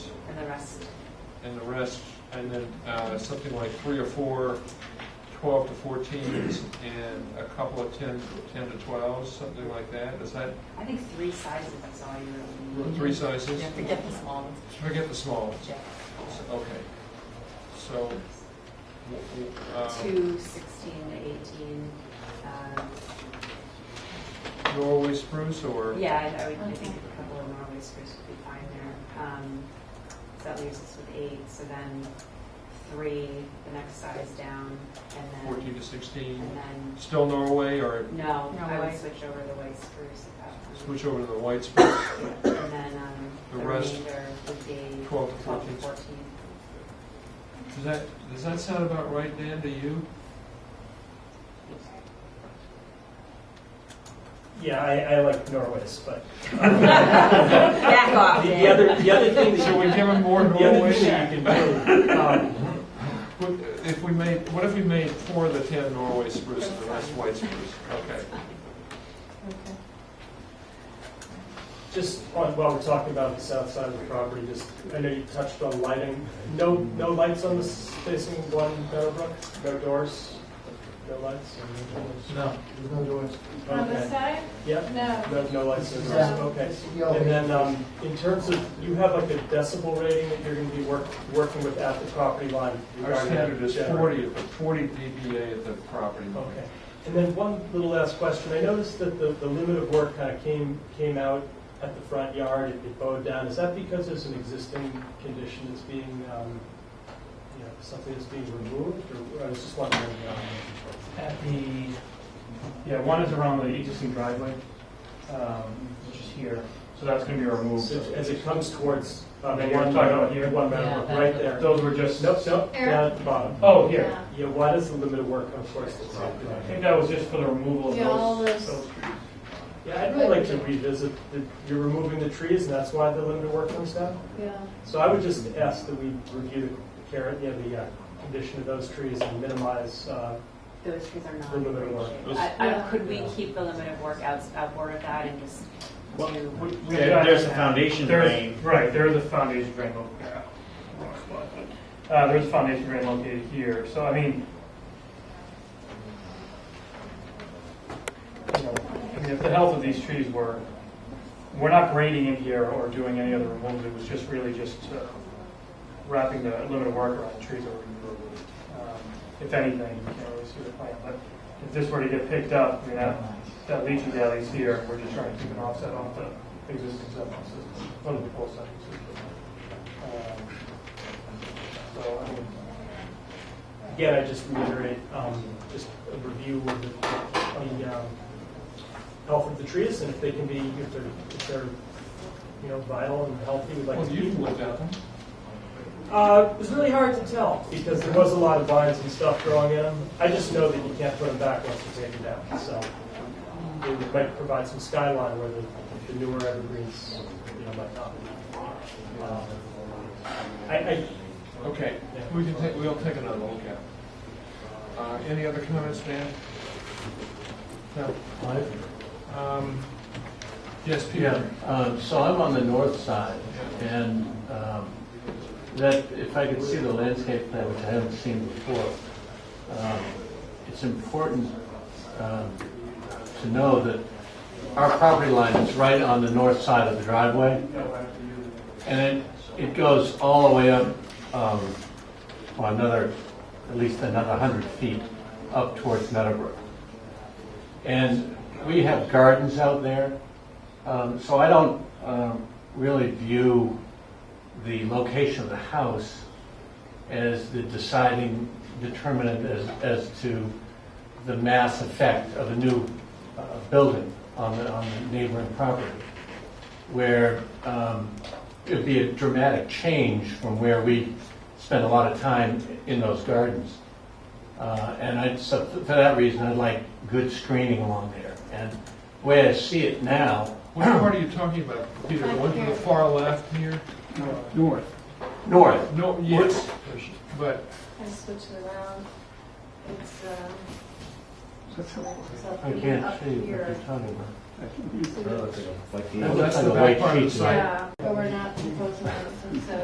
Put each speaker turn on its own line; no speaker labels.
rest.
and the rest, and then uh, something like three or four 12 to 14s and a couple of 10, 10 to 12s, something like that. Is that
I think three sizes is all you really need.
three sizes?
Yeah, forget the small ones.
Forget the small ones.
Yeah.
So- Okay. So, w- w- um,
Two, sixteen, eighteen, um,
Norway spruce or?
yeah, I I would, I think a couple of Norway spruce would be fine there. Um, so that leaves us with eight, so then three, the next size down, and
14
then,
to 16?
and then,
Still Norway or
no, I
Norway.
would switch over the white spruce at that point.
switch over to the white spruce?
And then, um,
The
the
rest,
remainder would be
12 to
twelve to
14s.
fourteen.
Does that, does that sound about right, Dan, to you?
Yeah, I, I like Norwis, but. um,
Back off,
The the
Dan.
other, the other thing that
Should we
you,
give him more
the other
Norway?
thing that you can do, um,
What- If we made, what if we made four of the 10 Norway spruce and the rest white spruce? Okay.
just on, while we're talking about the south side of the property, just, I know you touched on lighting. No, no lights on the s- facing one Meadowbrook? No doors? No lights?
No, there's no doors.
On this
Okay.
side?
Yep,
No.
no, no lights, no doors,
Yeah.
okay.
Yeah.
And then, um, in terms of, you have like a decibel rating that you're gonna be work, working with at the property line
Our
regarding.
standard is
generator.
40, 40 dBA at the property
Okay.
line.
And then one little last question. I noticed that the, the limit of work kind of came, came out at the front yard, it it bowed down. Is that because there's an existing condition that's being, um, you know, something that's being removed? Or, I was just wondering, um,
At the, yeah, one is around the existing driveway, um, which is here, so that's gonna be removed.
so as it comes towards, um,
Yeah,
one,
you're talking about here?
one metal, right there.
Those were just.
Nope, nope,
Here.
down at the bottom.
Oh, here,
Yeah, why does the limit of work come towards the property
I
line?
think that was just for the removal of
Yeah, all
those,
those-
those trees.
Yeah, I'd really like to revisit, that you're removing the trees, and that's why the limit of work comes down?
Yeah.
So I would just ask that we review the care, you know, the uh, condition of those trees and minimize, uh,
Those trees are not
The
in
limit
great
of work.
shape.
Those-
I- I- Could we keep the limit of work out, outboard of that and just
Well,
do?
we- we
There-
got-
there's a foundation
there's-
drain.
Right, there is a foundation drain located. Uh, there's a foundation drain located here, so I mean. you know, I mean, if the health of these trees were, we're not grading in here or doing any other removal, it was just really just uh, wrapping the limit of work around the trees that were removed. Um, If anything, you can't really see the plan, but if this were to get picked up, I mean, that, that leaching is here, and we're just trying to keep an offset off the existing septic system, one of the full septic system. Um, So, I mean,
again, I just reiterate, um, just a review of the, the, um, health of the trees and if they can be, if they're, if they're, you know, vital and healthy, we'd like
Well,
to
you
keep them.
looked at them.
Uh, it was really hard to tell because there was a lot of vines and stuff growing in them. I just know that you can't put them back once you take them down, so it might provide some skyline where the, the newer evergreens, you know, might not. be. Um, I, I,
Okay, we can take, we'll take another look at it. Uh, Any other comments, Dan? No. Um, Yes,
Yeah,
Peter?
um, so I'm on the north side, and um, that, if I could see the landscape plan, which I haven't seen before, um, it's important um, to know that our property line is right on the north side of the driveway, and it, it goes all the way up, um, well, another, at least another 100 feet up towards Meadowbrook. And we have gardens out there, um, so I don't um, really view the location of the house as the deciding determinant as, as to the mass effect of a new uh, building on the, on the neighboring property, where um, it would be a dramatic change from where we spend a lot of time in those gardens. Uh, And I, so for that reason, I'd like good screening along there. And the way I see it now,
What part are you talking about, Peter? The one to the far left here?
north.
north,
No, yes, but
I switched it around. It's, um, it's up
I
here,
can't
up
see what
here.
you're talking about.
So
Well, that's
That looks like
the
a
back
white
part of the
sheet.
site.
Yeah, but we're not proposing it, so